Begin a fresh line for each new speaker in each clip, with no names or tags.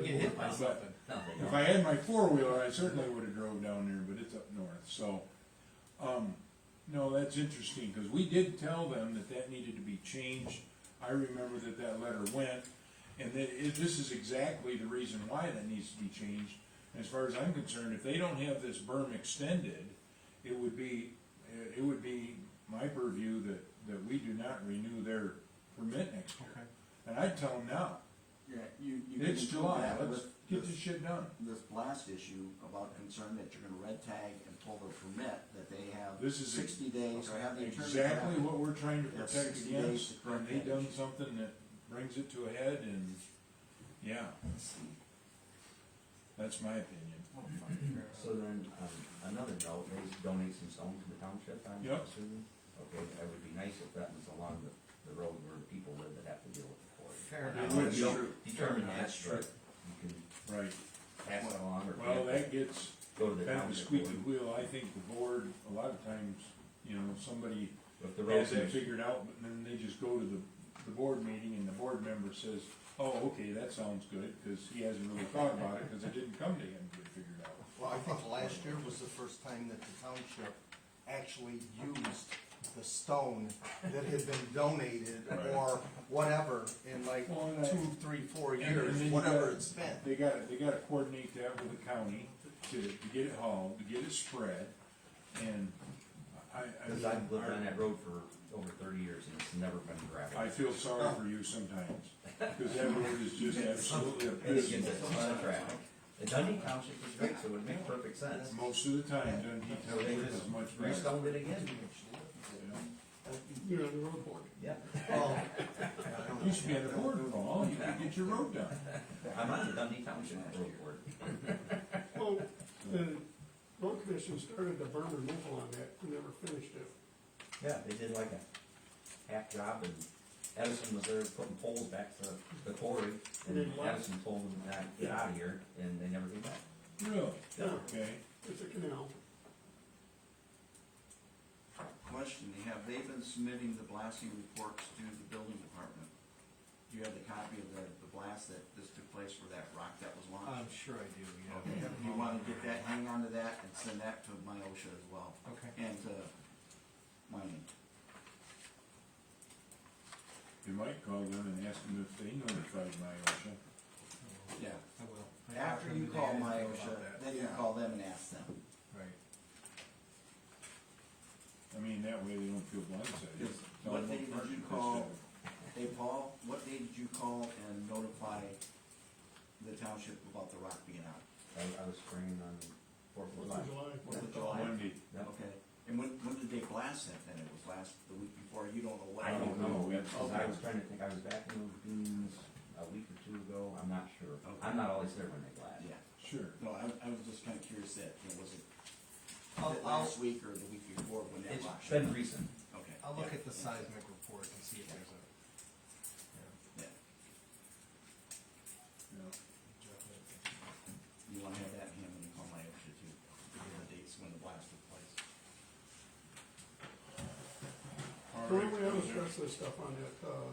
get hit by something.
If I had my four-wheeler, I certainly would have drove down there, but it's up north, so, um, no, that's interesting, cause we did tell them that that needed to be changed. I remember that that letter went, and that it, this is exactly the reason why that needs to be changed. As far as I'm concerned, if they don't have this berm extended, it would be, it would be my purview that, that we do not renew their permit next year. And I'd tell them now,
Yeah, you, you. can
it's
include
July,
that
let's
with
get
this-
this shit done.
This blast issue about concern that you're gonna red tag and pull the permit, that they have
This is
sixty days or have the attorney.
Exactly
draft.
what we're trying to
Yeah,
protect
60 days
against,
to
and
correct
they
that
done
issue.
something that brings it to a head and, yeah. That's my opinion.
So then, um, another note, maybe donate some stones to the township, I'm
Yep.
assuming? Okay, that would be nice if that was along the, the road where the people live that have to deal with the quarry.
Fair
It
Now,
would be
you'll
true.
Determine that,
That's
but
true.
you can
Right,
pass it along or.
well, that gets
Go to the
kind of a
township.
squeaky
board.
wheel, I think the board, a lot of times, you know, somebody
If the road
has that
commission,
figured out, but then they just go to the, the board meeting and the board member says, oh, okay, that sounds good, cause he hasn't really thought about it, cause it didn't come to him to get figured out.
Well, I think last year was the first time that the township actually used the stone that had been donated or whatever in like
Well, and I-
two, three, four
And- and
years,
then you
whatever
gotta-
it's been.
They gotta, they gotta coordinate that with the county to, to get it hauled, to get it spread, and I, I.
cause I've lived on that road for over thirty years and it's never been gravel.
I feel sorry for you sometimes, cause that road is just absolutely
And it gets
abysmal.
a ton of traffic. The Dundee Township is great, so it would make perfect sense.
Most of the time, Dundee
So they
Township
just
is much better.
restoned it again,
You're on the road board.
yeah.
Well,
You should be on the board for all, you could get your road done.
I'm on the Dundee Township road board.
Well, the road commission started the burn removal on that, and never finished it.
Yeah, they did like a half job and Edison was there putting poles back to the quarry
And
and
then what?
Edison told them not to get out of here and they never came back.
Really?
Yeah,
Okay,
it's a canal.
Question, have they been submitting the blasting reports to the building department? Do you have the copy of the, the blast that, this took place for that rock that was launched?
I'm sure I do,
Okay,
yeah.
you wanna get that, hang on to that and send that to my OSHA as well,
Okay.
and to mining.
you might call them and ask them if they notified my
Yeah,
I will. I
after
talked
you
to them
call
today, I
my
didn't think about
OSHA,
that.
then you call them and ask them.
Right.
OSHA. I mean, that way they don't feel blindsided.
Yes.
Tell
What
them
they- did
first and
you
best
call-
of it.
Hey, Paul, what day did you call and notify the township about the rock being out?
I, I was spraying on Fourth of
Fourth
July.
of July.
Fourth of
On
July.
Monday.
Yep.
Okay, and when, when did they blast it then? It was last, the week before, you don't know what?
I don't know,
Okay.
because I was trying to think, I was back in those dunes a week or two ago, I'm not sure. I'm not always there when they blast.
Yeah,
Sure.
no, I, I was just kinda curious that, you know, was it,
I'll-
was it last week or the week before when that rock?
It's been recent.
Okay.
I'll look at
yeah,
the
yeah,
seismic report and see if there's a, yeah,
Yeah,
Yeah.
definitely.
you wanna have that in hand when you call my OSHA too, to get the dates when the blast took place.
All
Don't
right.
we have the rest of the stuff on that, uh,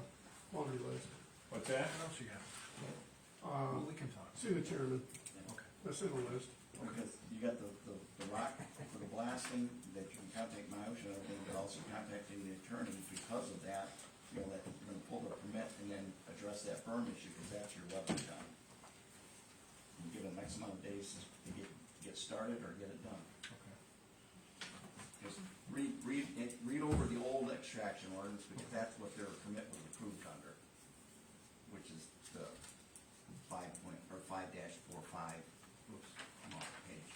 laundry list?
What's that?
What else you got? Well,
Uh,
we can talk.
see the chairman,
Okay.
that's in the list.
Because you got the, the, the rock for the blasting, that you can contact my OSHA, I think, but also contacting the attorney because of that, you know, that you're gonna pull the permit and then address that burn issue, because that's your weapon time. You give them X amount of days to get, get started or get it done.
Okay.
Just read, read, it- read over the old extraction ordinance, because that's what their permit was approved under, which is the five point, or five dash four five, oops, I'm off the page.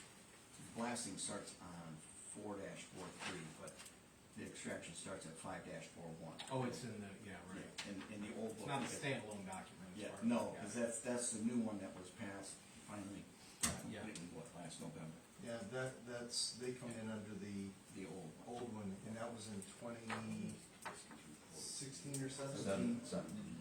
Blasting starts on four dash four three, but the extraction starts at five dash four one.
Oh, it's in the, yeah,
Yeah,
right.
in, in the old
It's
book.
not a
it-
standalone document. as
Yeah,
far as
no,
I got
because
it.
that's, that's the new one that was passed finally,
Yeah.
completely, what, last November,
Yeah, that, that's, they come in under the
the old one.
old one, and that was in twenty sixteen or
Seven,
seventeen?
something.